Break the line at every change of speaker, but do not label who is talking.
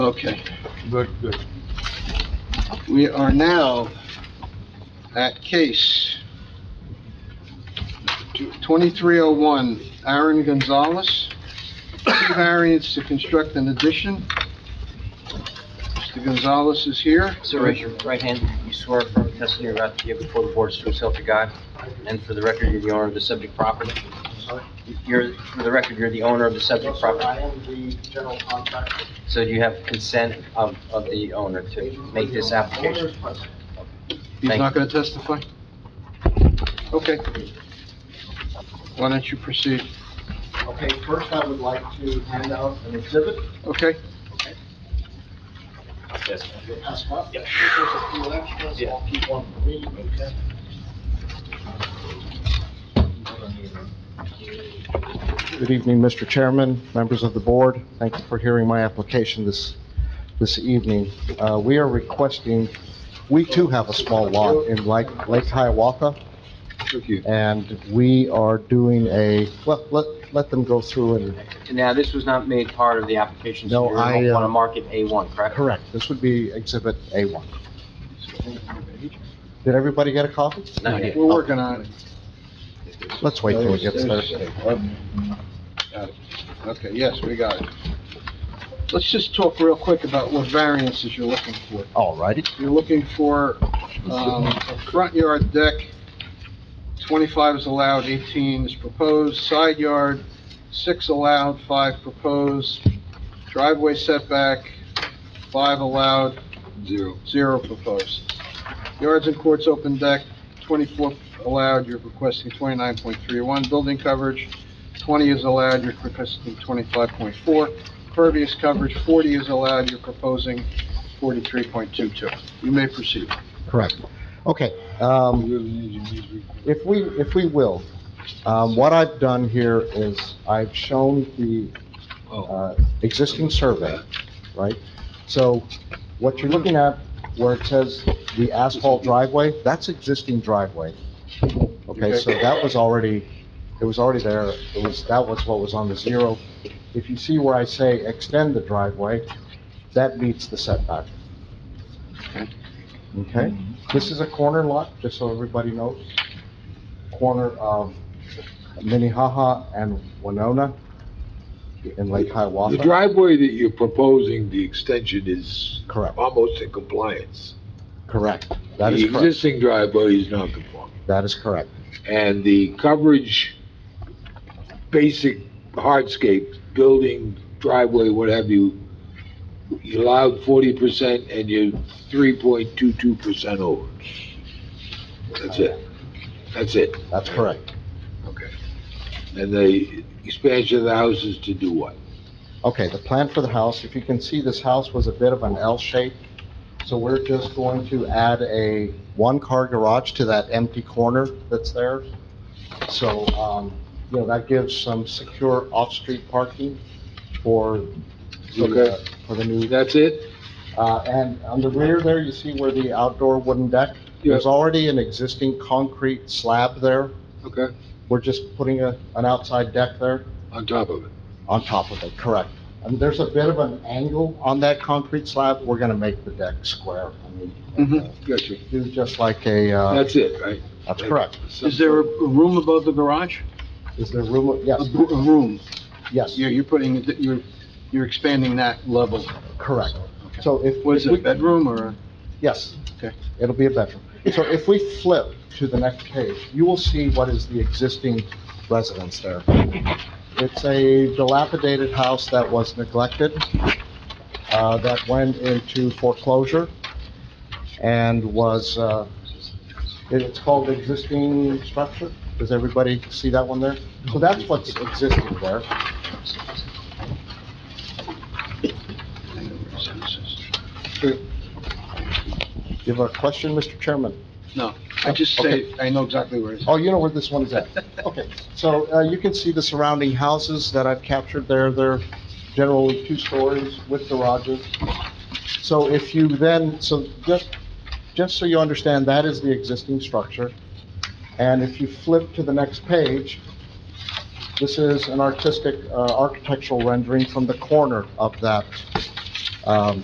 Okay,
Good, good.
we are now at case twenty-three oh one, Aaron Gonzalez, two variants to construct an addition. Mr. Gonzalez is here.
Sir, raise your right hand. You swear affirm the testimony you're about to give before the board is true self to God, and for the record, you're the owner of the subject property? You're, for the record, you're the owner of the subject property,
I am the general contractor.
so you have consent of, of the owner to make this application?
Owner's present.
He's not gonna testify? Okay. Why don't you proceed?
Okay, first I would like to hand out an exhibit.
Okay,
You'll pass one? Yes. There's a few extras, I'll keep one for me, okay?
Good evening, Mr. Chairman, members of the board. Thank you for hearing my application this, this evening. Uh, we are requesting, we too have a small lot in Lake, Lake Hiawatha, and we are doing a, well, let, let them go through and,
Now, this was not made part of the application, so
No,
you
I,
want
uh,
to mark it A1, correct?
correct, this would be Exhibit A1. Did everybody get a copy?
Not yet.
we're working on it.
Let's wait till it gets there.
Okay, yes, we got it. Let's just talk real quick about what variances you're looking for.
All righty.
You're looking for, um, a front yard deck, twenty-five is allowed, eighteen is proposed, side yard, six allowed, five proposed, driveway setback, five allowed,
Zero.
zero proposed. Yards and courts open deck, 24 allowed, you're requesting 29.31. Building coverage, 20 is allowed, you're requesting 25.4. Pervious coverage, 40 is allowed, you're proposing 43.22. You may proceed.
Correct. Okay, um, if we, if we will, um, what I've done here is I've shown the, uh, existing survey, right? So what you're looking at where it says the asphalt driveway, that's existing driveway. Okay, so that was already, it was already there, it was, that was what was on the zero. If you see where I say extend the driveway, that meets the setback. Okay, this is a corner lot, just so everybody knows. Corner of Minnehaha and Winona in Lake
The
Hiawatha.
driveway that you're proposing, the extension is
Correct,
almost in compliance.
correct. That is
The
correct.
existing driveway is non-conforming,
That is correct.
and the coverage, basic hardscape, building, driveway, what have you, you allowed forty percent and you're three point two two percent over. That's it. That's it.
That's correct.
And the expansion of the house is to do what?
Okay, the plan for the house, if you can see, this house was a bit of an L shape. So we're just going to add a one-car garage to that empty corner that's there. So, um, you know, that gives some secure off-street parking for the, uh,
Okay.
for the new,
That's it?
uh, and on the rear there, you see where the outdoor wooden deck? There's already an existing concrete slab there.
Okay,
We're just putting a, an outside deck there.
on top of it.
On top of it, correct. And there's a bit of an angle on that concrete slab, we're gonna make the deck square. I mean,
Mhm.
uh,
Gotcha.
Do just like a, uh,
That's it, right?
that's correct.
Is there a room above the garage?
Is there room,
A
yes,
br- a room.
yes,
You're, you're putting, you're, you're expanding that level.
correct. So if.
Was
if
it a
we-
bedroom or? a-
Yes.
Okay.
It'll be a bedroom. So if we flip to the next page, you will see what is the existing residence there. It's a dilapidated house that was neglected, uh, that went into foreclosure and was, uh, it- it's called existing structure. Does everybody see that one there? So that's what's existing there. Do you have a question, Mr. Chairman?
No, I just say, I know exactly where it is.
Oh, you know where this one is at? Okay, so, uh, you can see the surrounding houses that I've captured there, they're generally two stories with garages. So if you then, so just, just so you understand, that is the existing structure. And if you flip to the next page, this is an artistic, uh, architectural rendering from the corner of that, um,